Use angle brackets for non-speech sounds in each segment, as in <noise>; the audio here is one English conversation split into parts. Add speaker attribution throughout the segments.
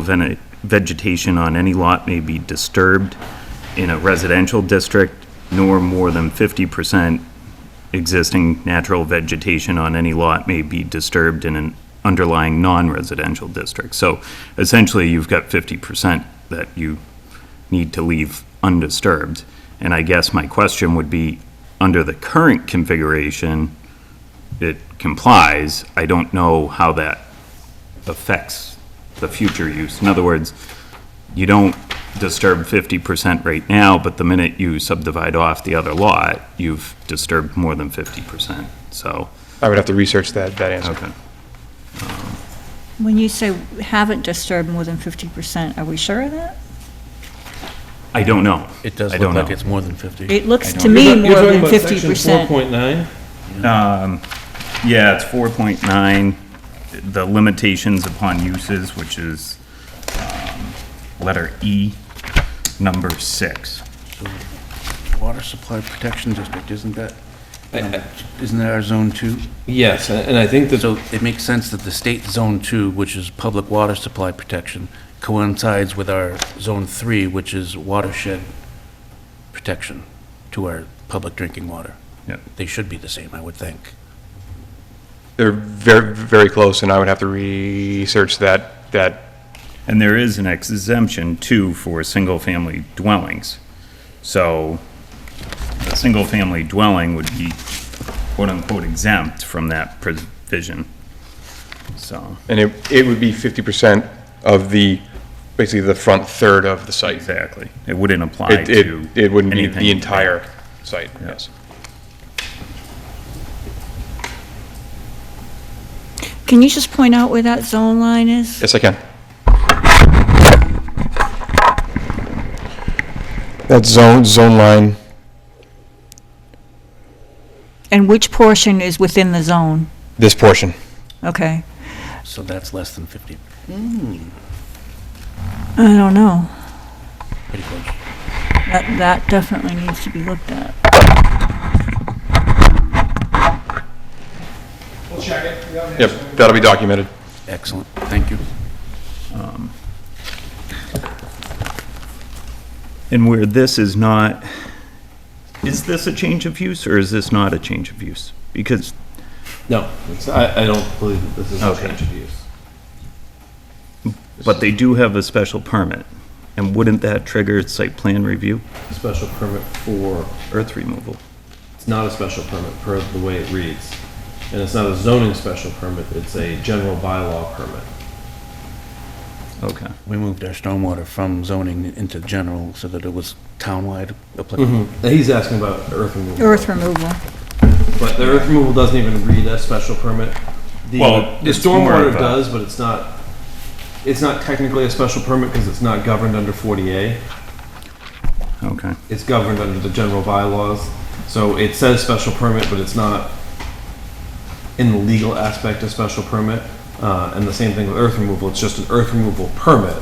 Speaker 1: vene- vegetation on any lot may be disturbed in a residential district, nor more than 50% existing natural vegetation on any lot may be disturbed in an underlying non-residential district. So essentially, you've got 50% that you need to leave undisturbed. And I guess my question would be, under the current configuration, it complies. I don't know how that affects the future use. In other words, you don't disturb 50% right now, but the minute you subdivide off the other lot, you've disturbed more than 50%. So,
Speaker 2: I would have to research that, that answer.
Speaker 1: okay.
Speaker 3: When you say haven't disturbed more than 50%, are we sure of that?
Speaker 1: I don't know.
Speaker 4: It does
Speaker 1: I
Speaker 4: look
Speaker 1: don't
Speaker 4: like
Speaker 1: know.
Speaker 4: it's more than 50.
Speaker 3: It looks to
Speaker 1: don't-
Speaker 3: me
Speaker 5: You're ta- you're
Speaker 3: more
Speaker 5: talking
Speaker 3: than
Speaker 5: about section
Speaker 3: 50%.
Speaker 5: 4.9?
Speaker 1: Yeah, it's 4.9, the limitations upon uses, which is um, letter E, number six.
Speaker 4: Water Supply Protection District, isn't that, isn't that our Zone 2?
Speaker 5: Yes, a- and I think that,
Speaker 4: So it makes sense that the state Zone 2, which is Public Water Supply Protection, coincides with our Zone 3, which is Watershed Protection to our public drinking water.
Speaker 1: Yep.
Speaker 4: They should be the same, I would think.
Speaker 2: They're very, very close, and I would have to research that, that,
Speaker 1: And there is an exemption too for single-family dwellings. So a single-family dwelling would be quote-unquote exempt from that provision. So,
Speaker 2: and it, it would be 50% of the, basically the front third of the site.
Speaker 1: exactly. It wouldn't apply
Speaker 2: It,
Speaker 1: to.
Speaker 2: it, it wouldn't be
Speaker 1: anything.
Speaker 2: the entire site, yes.
Speaker 3: Can you just point out where that zone line is?
Speaker 2: Yes, I can. That zone, zone line,
Speaker 3: And which portion is within the zone?
Speaker 2: this portion.
Speaker 3: Okay,
Speaker 4: So that's less than 50,
Speaker 3: I don't know.
Speaker 4: pretty close.
Speaker 3: That, that definitely needs to be looked at.
Speaker 2: Yep, that'll be documented.
Speaker 4: Excellent, thank you.
Speaker 1: And where this is not, is this a change of use or is this not a change of use? Because,
Speaker 5: no, it's- I, I don't believe that this is a
Speaker 1: Okay.
Speaker 5: change of use.
Speaker 1: but they do have a special permit. And wouldn't that trigger site plan review,
Speaker 5: A special permit for,
Speaker 1: earth removal?
Speaker 5: it's not a special permit per the way it reads. And it's not a zoning special permit, it's a general bylaw permit.
Speaker 1: Okay.
Speaker 4: We moved our stormwater from zoning into general so that it was townwide applicable.
Speaker 5: Now, He's asking about earth removal.
Speaker 3: Earth removal.
Speaker 5: But the earth removal doesn't even read a special permit. The,
Speaker 1: Well,
Speaker 5: the
Speaker 1: it's more
Speaker 5: stormwater
Speaker 1: of a-
Speaker 5: does, but it's not, it's not technically a special permit because it's not governed under 40A.
Speaker 1: Okay.
Speaker 5: It's governed under the general bylaws. So it says special permit, but it's not in the legal aspect of special permit. Uh, and the same thing with earth removal. It's just an earth removal permit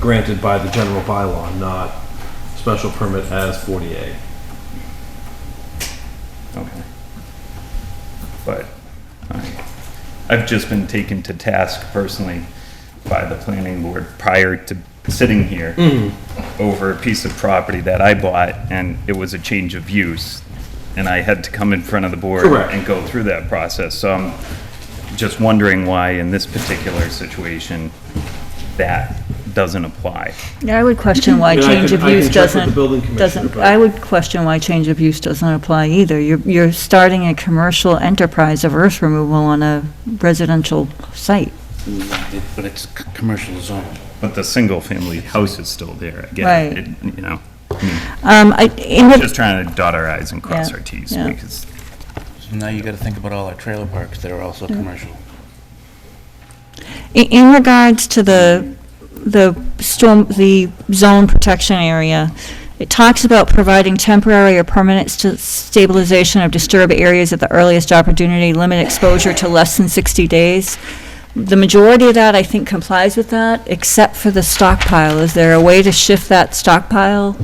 Speaker 5: granted by the general bylaw, not special permit as 40A.
Speaker 1: Okay. But, all right. I've just been taken to task personally by the planning board prior to sitting here over a piece of property that I bought, and it was a change of use, and I had to come in front of the board
Speaker 5: Correct.
Speaker 1: and go through that process, so I'm just wondering why in this particular situation that doesn't apply.
Speaker 3: Yeah, I would <laughs> question why
Speaker 5: Yeah, I
Speaker 3: change
Speaker 5: can-
Speaker 3: of
Speaker 5: I can
Speaker 3: use
Speaker 5: check with the
Speaker 3: doesn't,
Speaker 5: building commissioner,
Speaker 3: doesn't,
Speaker 5: but-
Speaker 3: I would question why change of use doesn't apply either. You're, you're starting a commercial enterprise of earth removal on a residential site.
Speaker 1: Mm-hmm.
Speaker 4: But it's c- commercial zone.
Speaker 1: But the single-family house is still there, I get
Speaker 3: Right.
Speaker 1: it, It- you know,
Speaker 3: Um, I, in the-
Speaker 1: just trying to dot our i's and cross
Speaker 3: Yeah,
Speaker 1: our t's,
Speaker 3: yeah.
Speaker 1: because
Speaker 4: So now you gotta think about all our trailer parks that are also commercial.
Speaker 3: I- In regards to the, the storm, the zone protection area, it talks about providing temporary or permanent st- stabilization of disturbed areas at the earliest opportunity, limit exposure to less than 60 days. The majority of that, I think, complies with that, except for the stockpile. Is there a way to shift that stockpile?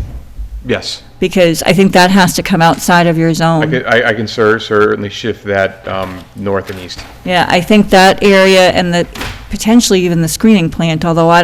Speaker 2: Yes.
Speaker 3: Because I think that has to come outside of your
Speaker 2: I
Speaker 3: zone.
Speaker 2: could, I, I can cer- certainly shift that, um, north and east.
Speaker 3: Yeah, I think that area and the, potentially even the screening plant, although I